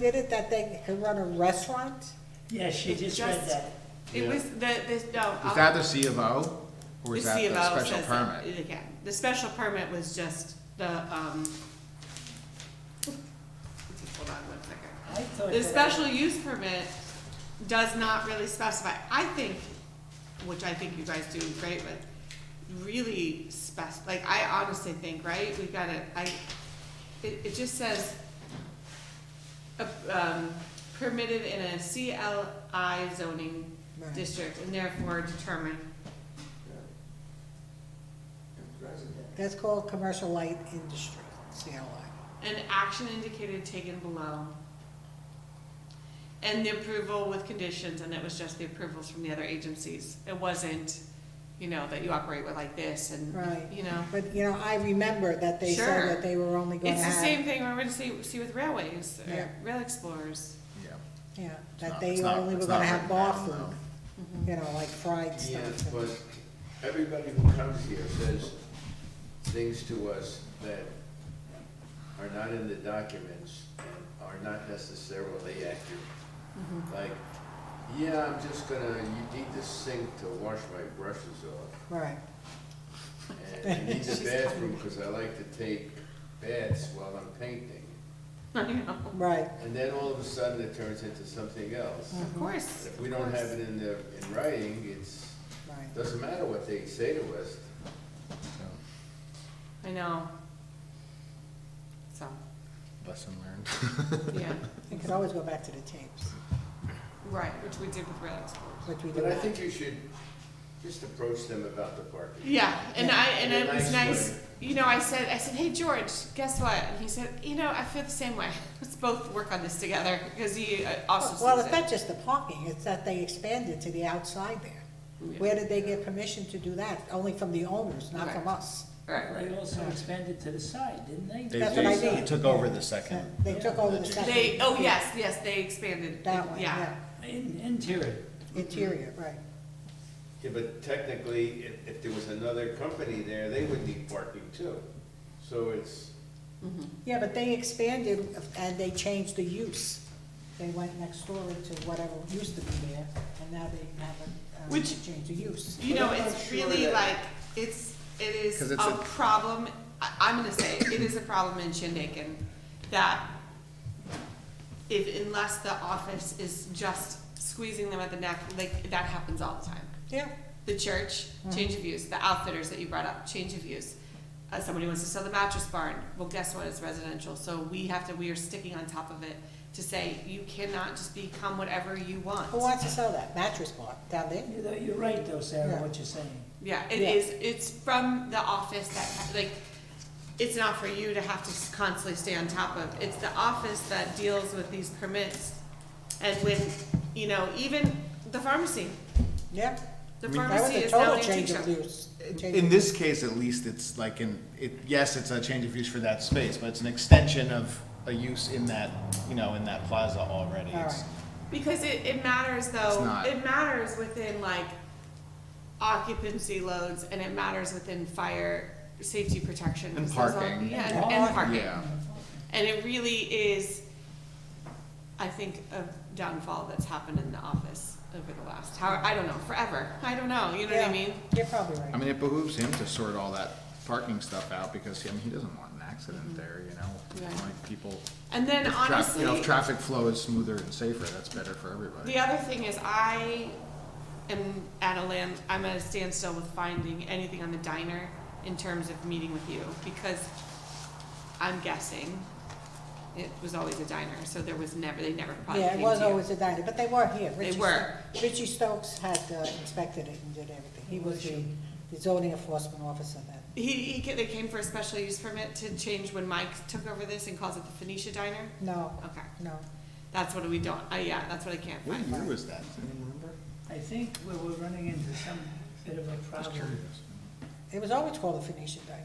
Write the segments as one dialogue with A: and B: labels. A: Did it that they could run a restaurant?
B: Yes, she just read
C: Just-
B: that.
C: It was the, this, no.
D: Is that the C of O, or is that
C: C of O
D: the special
C: says that
D: permit?
C: it can. The special permit was just the, um, hold on one second.
B: I thought
C: The
B: that-
C: special use permit does not really specify, I think, which I think you guys do great with, really spec, like, I honestly think, right, we gotta, I, it, it just says, uh, um, permitted in a CLI zoning
A: Right.
C: district and therefore determined.
A: That's called commercial light industry, CLI.
C: An action indicated taken below. And the approval with conditions, and it was just the approvals from the other agencies. It wasn't, you know, that you operate with like this and,
A: Right.
C: you know.
A: But, you know, I remember that they
C: Sure.
A: said that they were only gonna
C: It's the same
A: have,
C: thing we're gonna see, see with railways,
A: Yeah.
C: or rail explorers.
D: Yeah.
A: yeah,
D: not-
A: that
D: it's
A: they
D: not-
A: only were
D: it's
A: gonna
D: not
A: have
D: written
A: bar
D: down,
A: food,
C: Mm-hmm.
A: you know, like fried
E: Yes,
A: stuff.
E: but
A: and-
E: everybody who comes here says things to us that are not in the documents and are not necessarily accurate. Like, yeah, I'm just gonna, you need the sink to wash my brushes off.
A: Right,
E: And I need the bathroom because I like to take baths while I'm painting.
C: I know.
A: right,
E: And then all of a sudden it turns into something else.
C: Of course.
E: If we don't have it in the, in writing, it's,
A: right.
E: doesn't matter what they say to us,
D: So,
C: I know. So,
D: Lesson learned.
C: yeah,
A: You could always go back to the tapes,
C: right, which we did with rail explorers.
A: which we do
E: But I
A: have.
E: think you should just approach them about the parking.
C: Yeah, and I and
E: In a
C: it was
E: nice
C: nice.
E: way.
C: You know, I said, I said, hey George, guess what? And he said, you know, I feel the same way. Let's both work on this together because he uh, also
A: Well,
C: sees
A: it's
C: it.
A: not just the parking, it's that they expanded to the outside there.
C: Yeah.
A: Where did they get permission to do that? Only from the owners, not from
C: Right.
A: us.
C: Right, right.
B: They also expanded to the side, didn't they?
F: They-
A: That's what I
F: they
A: mean.
F: Took over the second.
A: They took over the
F: They-
A: second.
C: They oh yes, yes, they expanded
A: That one,
C: Yeah,
A: yeah,
B: In, interior.
A: interior, right.
E: Yeah, but technically, if, if there was another company there, they would need parking too. So it's,
A: Yeah, but they expanded and they changed the use. They went next door into whatever used to be there, and now they haven't, um,
C: Which-
A: changed the use.
C: you
E: But
C: know,
E: I'm not
C: it's
E: sure
C: really
E: that-
C: like it's it is
D: 'Cause
C: a,
D: it's a-
C: problem. I, I'm gonna say it is a problem in Shindaken that if unless the office is just squeezing them at the neck, like that happens all the time.
A: Yeah,
C: the church, change of use, the outfitters that you brought up, change of use. Uh, somebody wants to sell the mattress barn, well, guess what, it's residential, so we have to, we are sticking on top of it to say, you cannot just become whatever you
A: who
C: want.
A: wants to sell that mattress bar down there?
B: You know, You're right though, Sarah, what you're saying.
C: Yeah, it
A: Yeah.
C: is, it's from the office that, like, it's not for you to have to constantly stay on top of, it's the office that deals with these permits. And with, you know, even the pharmacy,
A: Yeah,
C: the
D: I mean,
A: that was
C: pharmacy
A: a
C: is now
A: total
C: an antique
A: change
C: shop.
A: of use. change
D: In
A: of-
D: this case, at least, it's like an, it, yes, it's a change of use for that space, but it's an extension of a use in that, you know, in that plaza already.
A: All
D: It's-
A: right.
C: Because it, it matters
D: It's
C: though,
D: not.
C: it matters within like occupancy loads and it matters within fire safety protection.
D: And
C: So it's all-
D: parking.
C: Yeah, and,
A: Parking.
C: and parking.
D: Yeah,
C: And it really is, I think, a downfall that's happened in the office over the last, how, I don't know, forever. I don't know, you know what
A: Yeah,
C: I mean?
A: You're probably right.
D: I mean, it behooves him to sort all that parking stuff out, because, I mean, he doesn't want an
A: Mm-hmm.
D: accident there, you know?
C: Right.
D: Like, people,
C: And then
D: if traffic,
C: honestly.
D: you know, if traffic flow is smoother and safer, that's better for everybody.
C: The other thing is I am at a land, I'm at a standstill with finding anything on the diner in terms of meeting with you because I'm guessing it was always a diner, so there was never, they never probably
A: Yeah,
C: came
A: it
C: to
A: was
C: you.
A: always a diner, but they were here.
C: They
A: Richie
C: were.
A: Sto- Richie Stokes had uh, inspected it and did everything. He was the the zoning enforcement officer then.
C: He, he, ca- they came for a special use permit to change when Mike took over this and calls it the Phoenicia Diner.
A: No,
C: Okay,
A: no,
C: that's what we don't, uh, yeah, that's what I can't
D: What
C: find.
D: year was that? Does anyone remember?
B: I think we we're running into some bit of a
D: Just
B: problem.
D: curious.
A: it was always called the Phoenician Diner,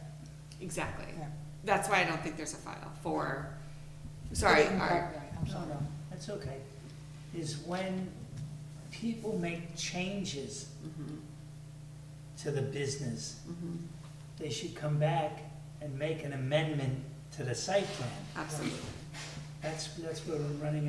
C: Exactly.
A: yeah.
C: That's why I don't think there's a file for,
A: It
C: sorry,
A: didn't
C: our-
A: quite right, I'm
B: No,
A: sorry.
B: no, that's okay. Is when people make changes
C: Mm-hmm,
B: to the business, they should come back and make an amendment to the site plan.
C: absolutely.
B: That's, that's where we're running